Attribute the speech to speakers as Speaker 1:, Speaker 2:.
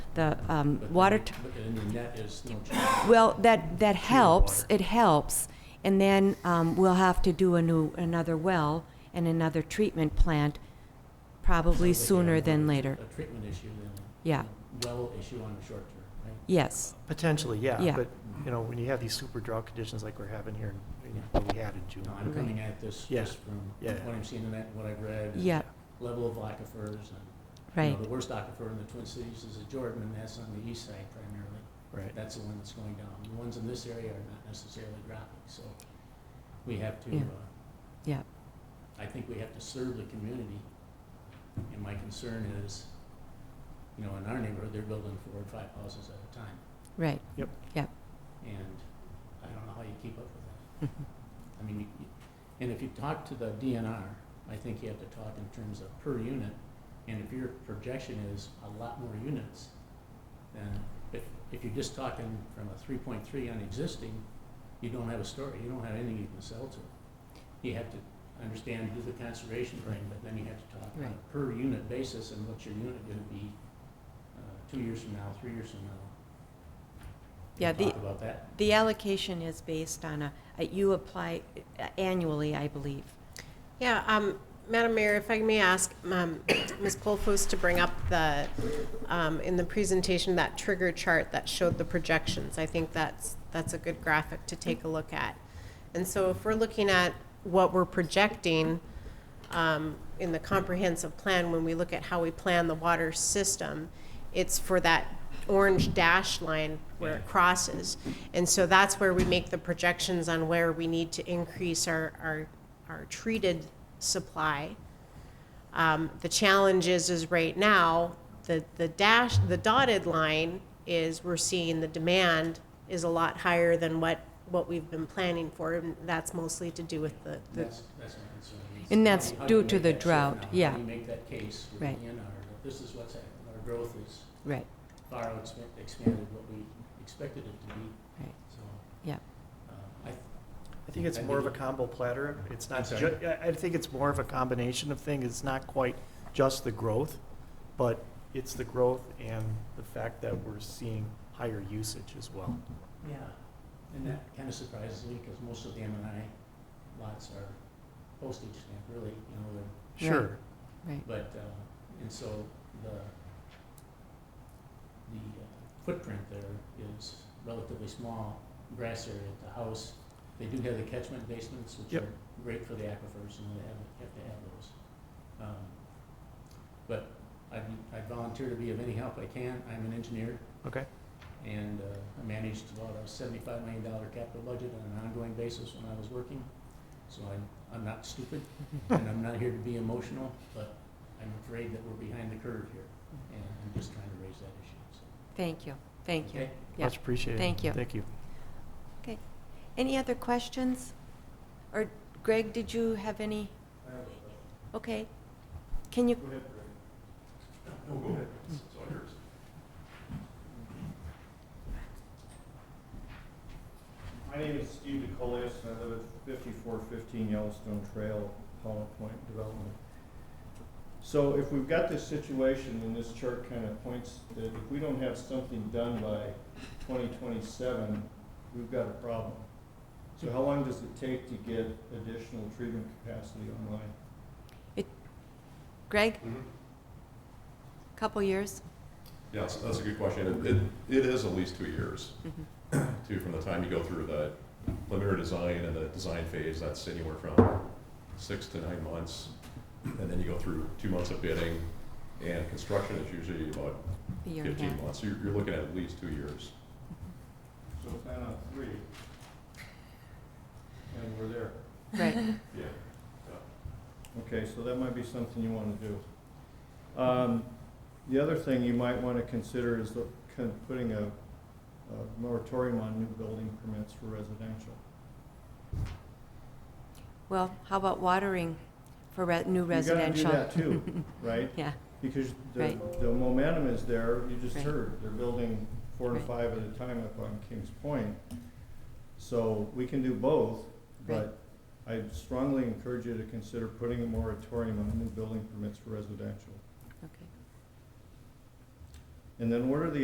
Speaker 1: the um, water, t-
Speaker 2: And the net is no change.
Speaker 1: well, that, that helps,
Speaker 2: water.
Speaker 1: it helps. And then um, we'll have to do a new, another well and another treatment plant, probably
Speaker 2: Sounds like you have more
Speaker 1: sooner
Speaker 2: of a-
Speaker 1: than later.
Speaker 2: A treatment issue than a
Speaker 1: Yeah.
Speaker 2: well issue on the short term, right?
Speaker 1: Yes,
Speaker 3: Potentially,
Speaker 1: Yeah.
Speaker 3: yeah, but, you know, when you have these super drought conditions like we're having here, in- in- what we had in June.
Speaker 2: No, I'm
Speaker 1: Okay.
Speaker 2: coming at this
Speaker 3: Yeah.
Speaker 2: just from
Speaker 3: Yeah.
Speaker 2: what I'm seeing in that, what I've read. and
Speaker 1: yeah,
Speaker 2: Level of aquifers and. you know,
Speaker 1: right,
Speaker 2: The worst aquifer in the Twin Cities is the Jordan, and that's on the east side primarily.
Speaker 3: Right,
Speaker 2: That's the one that's going down. The ones in this area are not necessarily dropping, so we have to,
Speaker 1: Yeah.
Speaker 2: uh,
Speaker 1: yeah,
Speaker 2: I think we have to serve the community. And my concern is, you know, in our neighborhood, they're building four or five houses at a time.
Speaker 1: right.
Speaker 2: and I don't know how you keep up with that. I mean, you, you- and if you talk to the DNR, I think you have to talk in terms of per unit, and if your projection is a lot more units, then if, if you're just talking from a three point three on existing, you don't have a story, you don't have anything you can sell to. You have to understand, do the conservation thing, but then you have to talk on
Speaker 1: Right.
Speaker 2: a per unit basis and what's your unit gonna be, uh, two years from now, three years from now.
Speaker 1: Yeah,
Speaker 2: We'll
Speaker 1: the-
Speaker 2: Talk about that.
Speaker 1: The allocation is based on a, a- you apply uh, annually, I believe.
Speaker 4: Yeah, um, Madam Mayor, if I may ask, um, Ms. Polfus to bring up the, um, in the presentation, that trigger chart that showed the projections. I think that's, that's a good graphic to take a look at. And so if we're looking at what we're projecting, um, in the comprehensive plan, when we look at how we plan the water system, it's for that orange dash line where it crosses. And so that's where we make the projections on where we need to increase our, our, our treated supply. Um, the challenge is, is right now, the, the dash, the dotted line is we're seeing the demand is a lot higher than what, what we've been planning for, and that's mostly to do with the, the
Speaker 2: That's, that's my concern. is
Speaker 1: And
Speaker 2: how
Speaker 1: that's
Speaker 2: do you- how do you
Speaker 1: due to
Speaker 2: make
Speaker 1: the
Speaker 2: that shift
Speaker 1: drought,
Speaker 2: now?
Speaker 1: yeah.
Speaker 2: How do you make that case with
Speaker 1: Right.
Speaker 2: DNR? that This is what's happened. Our growth is
Speaker 1: Right,
Speaker 2: far outspe- expanded what we expected it to be,
Speaker 1: right.
Speaker 2: so.
Speaker 1: Yeah.
Speaker 2: uh, I th-
Speaker 3: I think it's
Speaker 2: I
Speaker 3: more of a
Speaker 2: think-
Speaker 3: combo platter, it's
Speaker 2: I'm
Speaker 3: not,
Speaker 2: sorry.
Speaker 3: ju- I, I think it's more of a combination of things, it's not quite just the growth, but it's the growth and the fact that we're seeing higher usage as well.
Speaker 2: Yeah, and that kind of surprises me because most of the M and I lots are postage stamp, really, you know, they're
Speaker 3: Sure,
Speaker 2: But, uh, and so the, the uh, footprint there is relatively small, grass area at the house. They do have the catchment basements, which
Speaker 3: Yep.
Speaker 2: are great for the aquifers, and they have, have to have those. Um, But I, I volunteer to be of any help I can. I'm an engineer,
Speaker 3: okay,
Speaker 2: and uh, I managed about a seventy-five million dollar capital budget on an ongoing basis when I was working. So I'm, I'm not stupid, and I'm not here to be emotional, but I'm afraid that we're behind the curve here, and I'm just trying to raise that issue, so.
Speaker 1: Thank you, thank you.
Speaker 2: okay?
Speaker 1: Yeah.
Speaker 3: much appreciated.
Speaker 1: Thank you.
Speaker 3: Thank you.
Speaker 1: Any other questions? Or Greg, did you have any? Okay. Can you, Mm.
Speaker 5: My name is Steve DeColius, and I live at fifty-four fifteen Yellowstone Trail, Hollow Point Development. So if we've got this situation, and this chart kind of points that if we don't have something done by twenty twenty-seven, we've got a problem. So how long does it take to get additional treatment capacity online?
Speaker 1: Greg,
Speaker 6: Mhm.
Speaker 1: couple years?
Speaker 6: Yeah, so that's a good question. It, it is at least two years,
Speaker 1: Mhm.
Speaker 6: too, from the time you go through the preliminary design and the design phase, that's anywhere from six to nine months. And then you go through two months of bidding, and construction is usually about
Speaker 1: A year and a half?
Speaker 6: fifteen months. So you're, you're looking at at least two years.
Speaker 5: So plan on three, and we're there.
Speaker 1: Right,
Speaker 6: Yeah.
Speaker 5: Okay, so that might be something you want to do. Um, The other thing you might want to consider is the- kind of putting a a moratorium on new building permits for residential.
Speaker 1: well, how about watering for re- new
Speaker 5: You
Speaker 1: residential?
Speaker 5: gotta do that too, right?
Speaker 1: Yeah,
Speaker 5: Because the
Speaker 1: Right.
Speaker 5: the momentum is there, you just
Speaker 1: Right.
Speaker 5: heard, they're building four and
Speaker 1: Right.
Speaker 5: five at a time up on Kings Point. So we can do both, but I strongly encourage you to consider putting a moratorium on new building permits for residential.
Speaker 1: okay.
Speaker 5: And then what are the